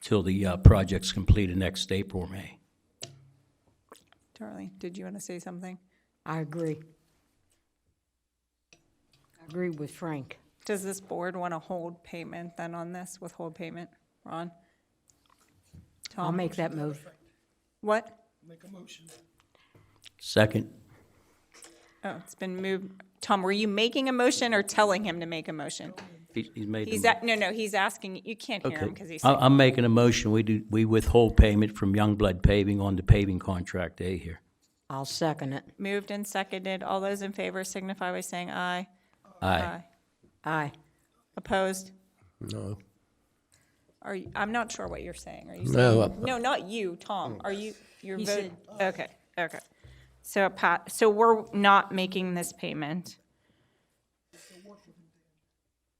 till the uh, project's completed next April or May. Charlie, did you want to say something? I agree. I agree with Frank. Does this board want to hold payment then on this, withhold payment? Ron? I'll Um, make that motion. What? Second, Oh, it's been moved. Tom, were you making a motion or telling him to make a motion? he- he's made the He's, mo- a- no, no, he's asking, you can't hear him Okay. because he's, I- I'm making a motion, we do, we withhold payment from Youngblood Paving on the paving contract A here. I'll second it. moved and seconded. All those in favor signify by saying aye. Aye. Aye. Opposed? No. Are, you- I'm not sure what you're saying. Are you saying? No, I- No, not you, Tom. Are you, you're He voting? Okay, okay. So Pat, so we're not making this payment.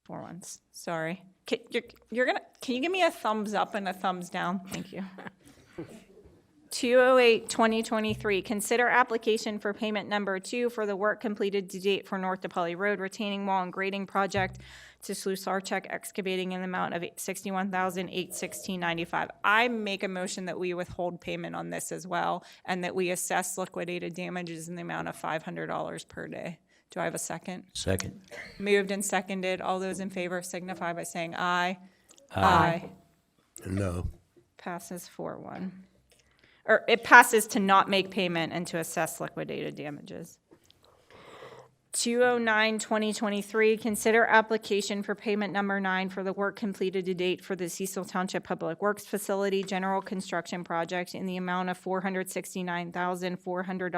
For once, sorry. Ca- You're, you're gonna, can you give me a thumbs up and a thumbs down? Thank you. 208, 2023, consider application for payment number two for the work completed to date for North DePauli Road retaining wall and grading project to Sarchek excavating in the amount of $61,816.95. I make a motion that we withhold payment on this as well, and that we assess liquidated damages in the amount of $500 per day. Do I have a second? Second, Moved and seconded. All those in favor signify by saying aye. Aye. No. Passes four one. Or it passes to not make payment and to assess liquidated damages. 209, 2023, consider application for payment number nine for the work completed to date for the Cecil Township Public Works Facility General Construction Project in the amount of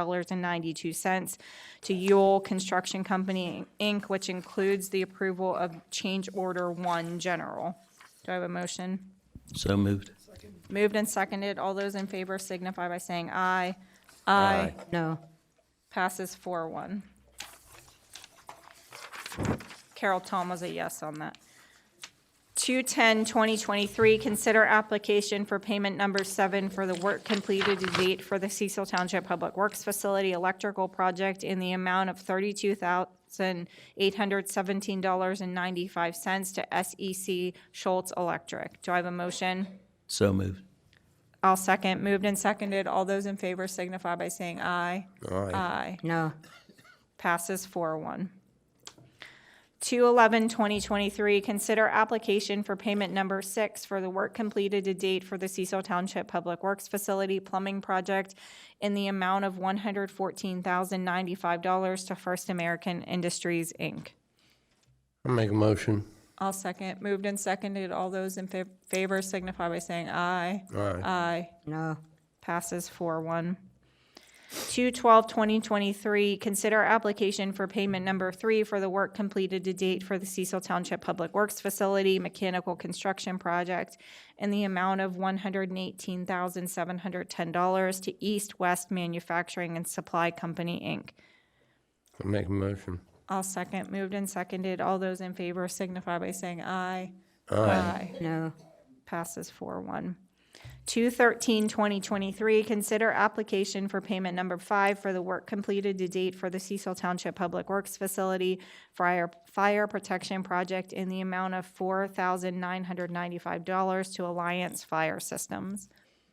$469,400.92 to Yule Construction Company, Inc., which includes the approval of change order one general. Do I have a motion? so moved. Moved and seconded. All those in favor signify by saying aye. Aye. No. Passes four one. Carol Tom was a yes on that. 210, 2023, consider application for payment number seven for the work completed to date for the Cecil Township Public Works Facility Electrical Project in the amount of $32,817.95 to SEC Schultz Electric. Do I have a motion? So moved. I'll second. Moved and seconded. All those in favor signify by saying aye. Aye. Aye. No. Passes four one. 211, 2023, consider application for payment number six for the work completed to date for the Cecil Township Public Works Facility Plumbing Project in the amount of $114,095 to First American Industries, Inc. I'll make a motion. I'll second. Moved and seconded. All those in fa- favor signify by saying aye. Aye. Aye. No. Passes four one. Two twelve twenty twenty-three, consider application for payment number three for the work completed to date for the Cecil Township Public Works Facility Mechanical Construction Project in the amount of one hundred and eighteen thousand seven hundred ten dollars to East West Manufacturing and Supply Company, Inc. I'll make a motion. I'll second. Moved and seconded. All those in favor signify by saying aye. Aye No. passes four one. Two thirteen twenty twenty-three, consider application for payment number five for the work completed to date for the Cecil Township Public Works Facility Fire, Fire Protection Project in the amount of four thousand nine hundred ninety-five dollars to Alliance Fire Systems.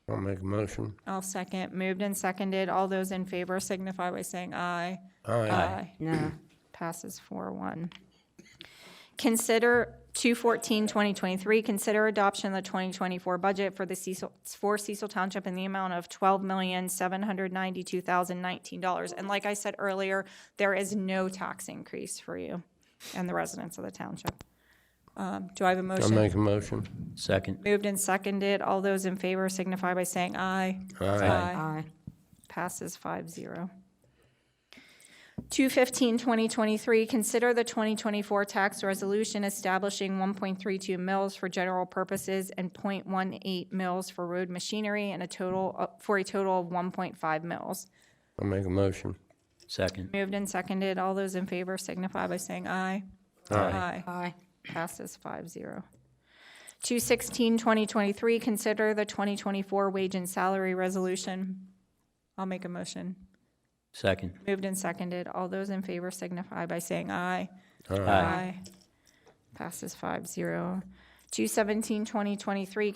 I'll make a motion. I'll second. Moved and seconded. All those in favor signify by saying aye. Aye. Aye. No. Passes four one. Consider 214, 2023, consider adoption of the 2024 budget for the Cecil, for Cecil Township in the amount of $12,792,019. And like I said earlier, there is no tax increase for you and the residents of the township. Um, Do I have a I'll motion? make a motion. Second, Moved and seconded. All those in favor signify by saying aye. Aye. Aye. Passes five zero. 215, 2023, consider the 2024 tax resolution establishing 1.32 mills for general purposes and .18 mills for road machinery and a total, uh, for a total of 1.5 mills. I'll make a motion. second, Moved and seconded. All those in favor signify by saying aye. Aye. Aye. Passes five zero. 216, 2023, consider the 2024 wage and salary resolution. I'll make a motion. second, Moved and seconded. All those in favor signify by saying aye. aye. Passes five zero. Two seventeen twenty twenty-three,